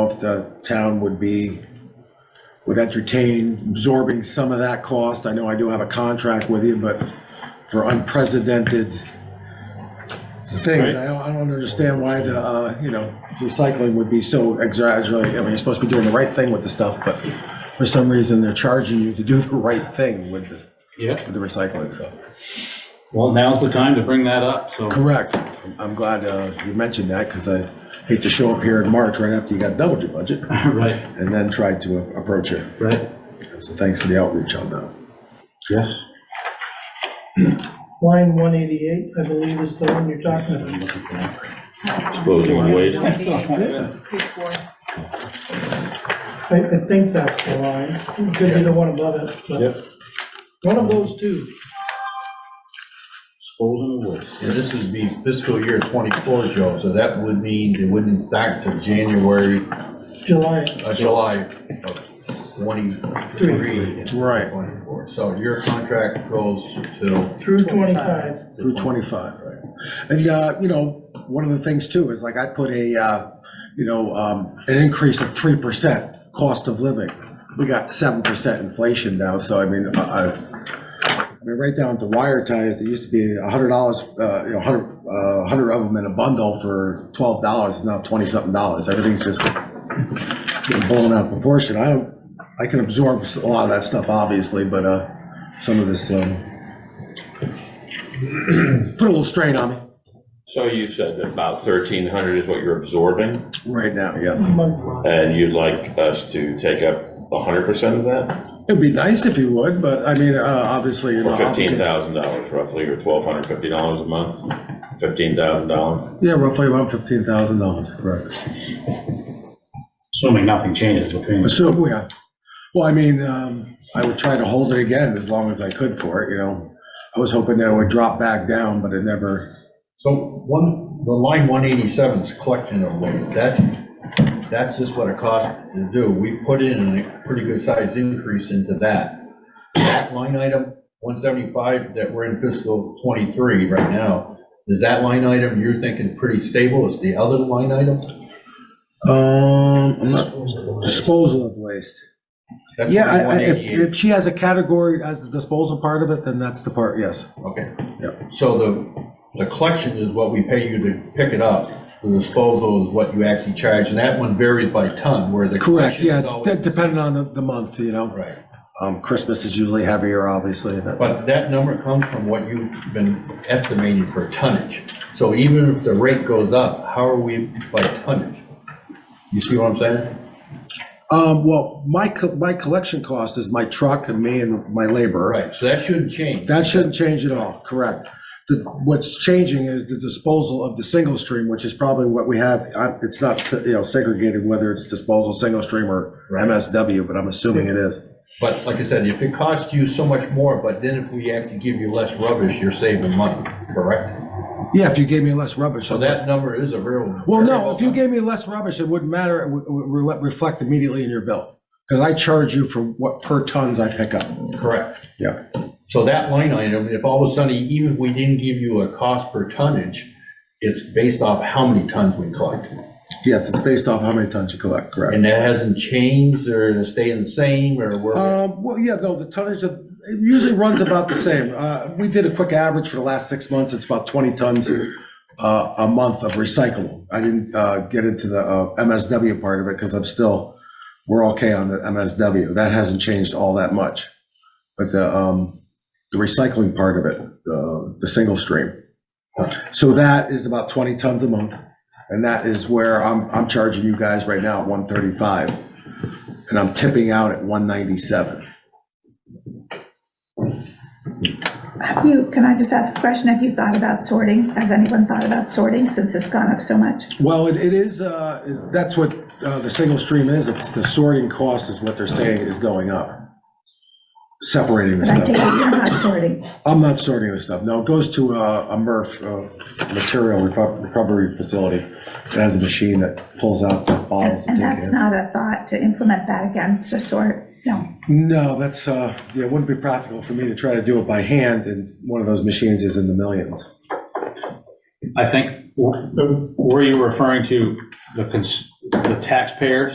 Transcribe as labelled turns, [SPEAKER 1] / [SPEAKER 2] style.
[SPEAKER 1] if the town would be, would entertain absorbing some of that cost. I know I do have a contract with you, but for unprecedented things, I don't, I don't understand why the, uh, you know, recycling would be so exaggerated. I mean, you're supposed to be doing the right thing with the stuff, but for some reason, they're charging you to do the right thing with the,
[SPEAKER 2] Yep,
[SPEAKER 1] with the recycling, so.
[SPEAKER 2] well, now's the time to bring that up, so.
[SPEAKER 1] Correct. I'm glad uh, you mentioned that because I hate to show up here in March right after you got doubled your budget
[SPEAKER 2] Right,
[SPEAKER 1] and then try to approach it.
[SPEAKER 2] right.
[SPEAKER 1] So thanks for the outreach on that.
[SPEAKER 2] Yes.
[SPEAKER 3] Line one eighty-eight, I believe, is the one you're talking about.
[SPEAKER 4] Disposal of waste.
[SPEAKER 3] I, I think that's the line, It could be the one above it, but
[SPEAKER 2] Yep,
[SPEAKER 3] one of those two.
[SPEAKER 2] disposal of waste.
[SPEAKER 5] Yeah, This would be fiscal year twenty-four, Joe, so that would mean it wouldn't start till January,
[SPEAKER 3] July,
[SPEAKER 5] uh, July of twenty-three.
[SPEAKER 1] Right.
[SPEAKER 5] Twenty-four, so your contract goes till,
[SPEAKER 3] through twenty-five,
[SPEAKER 1] Through 25, right. And, uh, you know, one of the things too is like I put a, uh, you know, um, an increase of 3% cost of living. We got 7% inflation now, so I mean, I, I- I mean, right down to wire ties, there used to be $100, uh, you know, 100, uh, 100 of them in a bundle for $12, it's now 20-something dollars. Everything's just getting blown out of proportion. I don't, I can absorb a lot of that stuff, obviously, but uh, some of this, um, put a little strain on me.
[SPEAKER 4] So you said that about thirteen hundred is what you're absorbing,
[SPEAKER 1] Right now, yes.
[SPEAKER 3] monthly.
[SPEAKER 4] and you'd like us to take up hundred percent of that?
[SPEAKER 1] It'd be nice if you would, but I mean, uh, obviously, you're
[SPEAKER 4] Or
[SPEAKER 1] not.
[SPEAKER 4] fifteen
[SPEAKER 1] obligated.
[SPEAKER 4] thousand dollars roughly, or twelve hundred fifty dollars a month? Fifteen thousand dollars?
[SPEAKER 1] Yeah, roughly about fifteen thousand dollars, correct.
[SPEAKER 2] Assuming nothing changes between.
[SPEAKER 1] So, yeah. Well, I mean, um, I would try to hold it again as long as I could for it, you know. I was hoping that it would drop back down, but it never,
[SPEAKER 5] so one, the line one eighty-seven is collection of waste, that's, that's just what it costs to do. We put in a pretty good sized increase into that. That line item, one seventy-five, that we're in fiscal twenty-three right now, is that line item you're thinking pretty stable, is the other line item?
[SPEAKER 1] um, I'm not- disposal of waste.
[SPEAKER 5] That's
[SPEAKER 1] Yeah, I- I- if,
[SPEAKER 5] 188.
[SPEAKER 1] if she has a category as the disposal part of it, then that's the part, yes.
[SPEAKER 5] Okay.
[SPEAKER 1] Yeah.
[SPEAKER 5] So the, the collection is what we pay you to pick it up. The disposal is what you actually charge, and that one varies by ton, where the.
[SPEAKER 1] Correct,
[SPEAKER 5] collection
[SPEAKER 1] yeah,
[SPEAKER 5] is always-
[SPEAKER 1] de- depending on the, the month, you know.
[SPEAKER 5] Right.
[SPEAKER 1] Um, Christmas is usually heavier, obviously. that-
[SPEAKER 5] But that number comes from what you've been estimating for tonnage. So even if the rate goes up, how are we by tonnage? You see what I'm saying?
[SPEAKER 1] Um, well, my, co- my collection cost is my truck and me and my labor.
[SPEAKER 5] Right, so that shouldn't change.
[SPEAKER 1] That shouldn't change at all, correct. The, what's changing is the disposal of the single stream, which is probably what we have. I- It's not, se- you know, segregated whether it's disposal, single stream or
[SPEAKER 5] Right.
[SPEAKER 1] MSW, but I'm assuming it is.
[SPEAKER 5] But like I said, if it costs you so much more, but then if we actually give you less rubbish, you're saving money, correct?
[SPEAKER 1] Yeah, if you gave me less rubbish.
[SPEAKER 5] So
[SPEAKER 1] I'd-
[SPEAKER 5] that number is a real.
[SPEAKER 1] Well, no, if you
[SPEAKER 5] variable.
[SPEAKER 1] gave me less rubbish, it wouldn't matter. It would, would re- reflect immediately in your bill. Cause I charge you for what per tons I pick up.
[SPEAKER 5] Correct.
[SPEAKER 1] Yeah.
[SPEAKER 5] So that line item, if all of a sudden, even if we didn't give you a cost per tonnage, it's based off how many tons we collect.
[SPEAKER 1] Yes, it's based off how many tons you collect, correct?
[SPEAKER 5] And that hasn't changed or stayed the same or where,
[SPEAKER 1] Um, well, yeah, no, the tonnage of, it usually runs about the same. Uh, we did a quick average for the last six months, it's about twenty tons uh, a month of recyclable. I didn't, uh, get into the, uh, MSW part of it, because I'm still, we're okay on the MSW. That hasn't changed all that much. But the, um, the recycling part of it, uh, the single stream. So that is about twenty tons a month, and that is where I'm, I'm charging you guys right now at one thirty-five and I'm tipping out at 197.
[SPEAKER 6] Have you, can I just ask a question? Have you thought about sorting? Has anyone thought about sorting since it's gone up so much?
[SPEAKER 1] Well, it it is, uh, that's what uh, the single stream is, it's the sorting cost is what they're saying is going up. Separating the
[SPEAKER 6] But I take it
[SPEAKER 1] stuff.
[SPEAKER 6] you're not sorting.
[SPEAKER 1] I'm not sorting the stuff, no, it goes to uh, a MRF, uh, material reco- recovery facility. It has a machine that pulls out the bottles and
[SPEAKER 6] And
[SPEAKER 1] take
[SPEAKER 6] that's
[SPEAKER 1] it.
[SPEAKER 6] not a thought to implement that again, to sort, no.
[SPEAKER 1] No, that's, uh, yeah, it wouldn't be practical for me to try to do it by hand, and one of those machines is in the millions.
[SPEAKER 2] I think, were you referring to the cons- the taxpayer